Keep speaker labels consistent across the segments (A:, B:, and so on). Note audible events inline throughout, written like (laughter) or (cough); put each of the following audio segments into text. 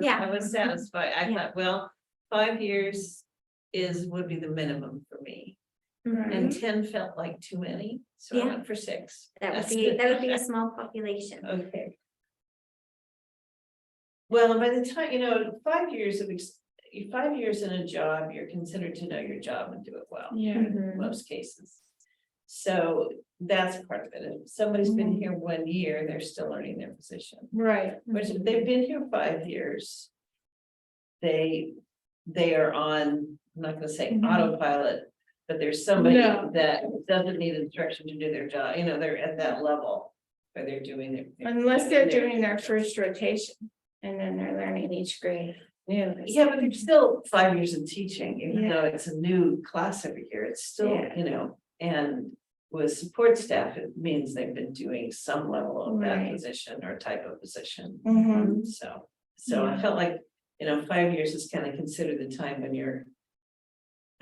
A: Yeah. Mm-hmm.
B: I was satisfied. I
A: Yeah.
B: thought, well, five years is, would be the minimum for me. And
A: Mhm.
B: ten felt like too many, so I
A: Yeah.
B: went for six.
A: That would
B: That's
A: be,
B: good.
A: that would be a small population.
B: Okay. Well, by the time, you know, five years of, ex- five years in a job, you're considered to know your job and do it well.
C: (laughs) Yeah,
B: in most cases. So that's part of it. If somebody's been
A: Mm-hmm.
B: here one year, they're still learning their position.
C: right. Mm-hmm.
B: Which if they've been here five years. They, they are on, I'm not gonna say
C: Mhm.
B: autopilot, but there's somebody
C: No.
B: that doesn't need instruction to do their job, you know, they're at that level. Where they're doing their.
C: Unless they're doing their first rotation and then they're learning each grade. Yeah.
B: Yeah, but they're still five years in teaching, even
C: Yeah.
B: though it's a new class every year, it's still,
C: Yeah.
B: you know, and. With support staff, it means they've been doing some level of that
C: Right.
B: position or type of position,
C: Mhm.
B: so, so I
C: Yeah.
B: felt like, you know, five years is kind of considered the time when you're.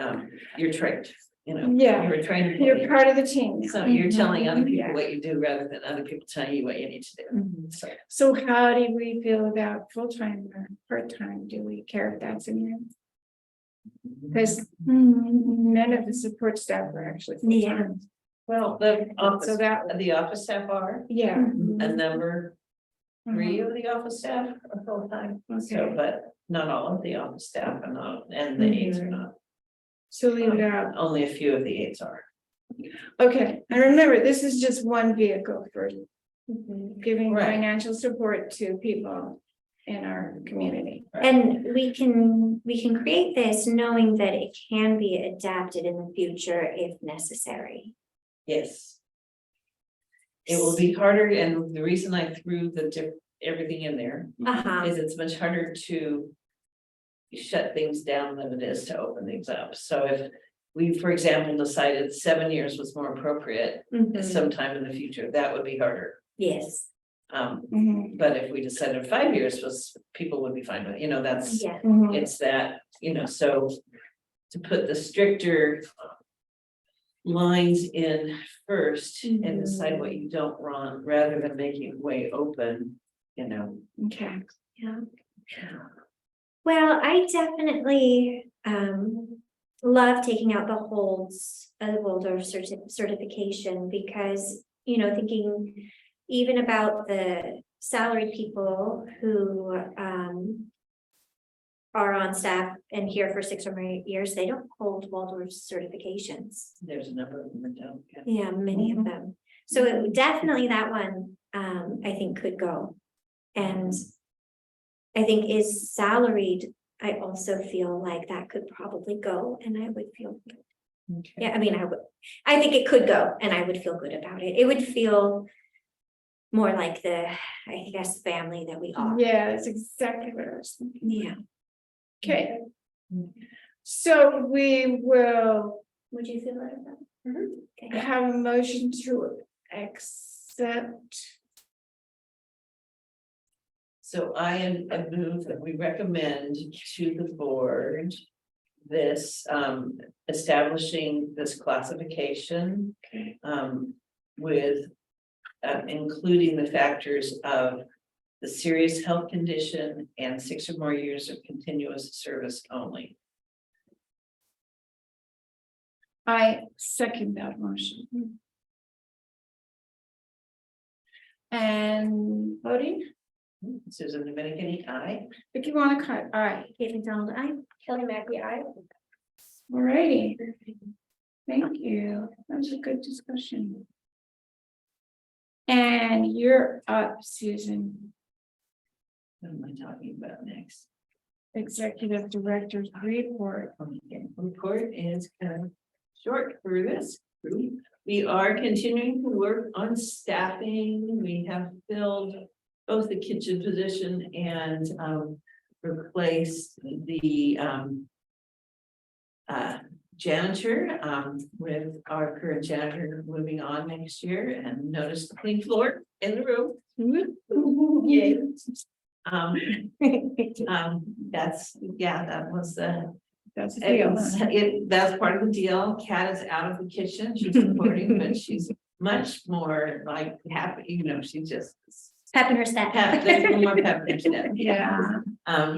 B: Um, you're trained, you know.
C: Yeah.
B: You were trained. to
C: You're
B: believe.
C: part of the team.
B: So you're telling other
C: Mhm.
B: people
C: Yeah. Mm-hmm.
B: what you do rather than other people telling you what you need to do, so.
C: So how do we feel about full-time or part-time? Do we care if that's in here? Because none of the support staff are actually
A: Yeah.
C: full-time.
B: Well, the
C: So Mm-hmm.
B: office,
C: that,
B: the office staff are.
C: yeah. Uh-huh.
B: a number three of the office staff are full-time, so,
C: Mm-hmm. Okay. Mm-hmm.
B: but not all of the office staff are not, and the aides are not,
C: So leave it out.
B: only a few of the aides are.
C: Okay, and remember, this is just one vehicle for giving
B: Right.
C: financial support to people in our community.
A: And we can, we can create this knowing that it can be adapted in the future if necessary.
B: Yes. It will be harder, and the reason I threw the diff, everything in there
A: Uh-huh,
B: is it's much harder to. Shut things down than it is to open things up, so if we, for example, decided seven years was more appropriate
A: Mhm.
B: sometime in the future, that would be harder.
A: mm-hmm, yes,
B: Um,
C: Mhm.
B: But if we decided five years was, people would be fine with, it, you know, that's,
A: yeah,
C: Mhm.
B: it's that, you know, so. To put the stricter. Lines in first and decide what you don't want, rather than making it way open, you know.
C: Okay,
A: yeah. Well, I definitely um love taking out the holds of the Waldorf certi- certification because, you know, thinking even about the salaried people who um are on staff and here for six or more years, they don't hold Waldorf certifications.
B: There's a number of them that don't. yeah.
A: Yeah, many of them. So it- definitely that one, um, I think could go. And I think is salaried, I also feel like that could probably go and I would feel,
B: Okay.
A: yeah, I mean, I would, I think it could go and I would feel good about it. It would feel more like the, I guess, family that we are.
C: yeah, that's exactly what I was thinking.
A: Yeah.
C: Okay. So we will
A: Would you feel like that? Okay.
C: have a motion to accept.
B: So I am, I move that we recommend to the board. This, um, establishing this classification.
C: Okay.
B: um, with, uh, including the factors of the serious health condition and six or more years of continuous service only.
C: I second that motion. And voting,
B: Susan Dominican, aye.
C: if you want to cut, all right,
A: Kate McDonald, I. Kelly Mackey, I.
C: all righty. Thank you. That was a good discussion. And you're up, Susan,
B: What am I talking about next?
C: Executive Director's Report.
B: Okay, Report is kind of short for this group. We are continuing to work on staffing. We have filled both the kitchen position and um replaced the um uh janitor um with our current janitor moving on next year and noticed the clean floor in the room. Yay. (laughs) Um, um, that's, yeah, that was the
C: That's a
B: it
C: deal.
B: was- It, that's part of the deal. Kat is out of the kitchen. She's supporting, but she's much more like happy, you know, she just.
A: Pep in her
C: (laughs)
A: step.
B: Pep, there's no more pep in her step.
C: Yeah.
B: Um,